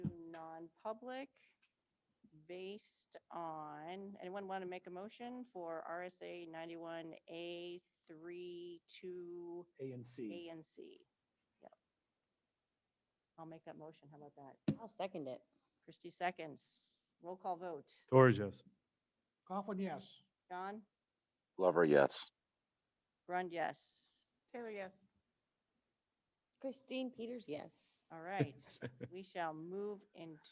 public based on, anyone want to make a motion for RSA 91A 3, 2, A and C. A and C? Yep. I'll make that motion. How about that? I'll second it. Christie seconds. Roll call vote. Torres, yes. Coughlin, yes. John? Glover, yes. Grund, yes. Taylor, yes. Christine Peters, yes. All right. We shall move into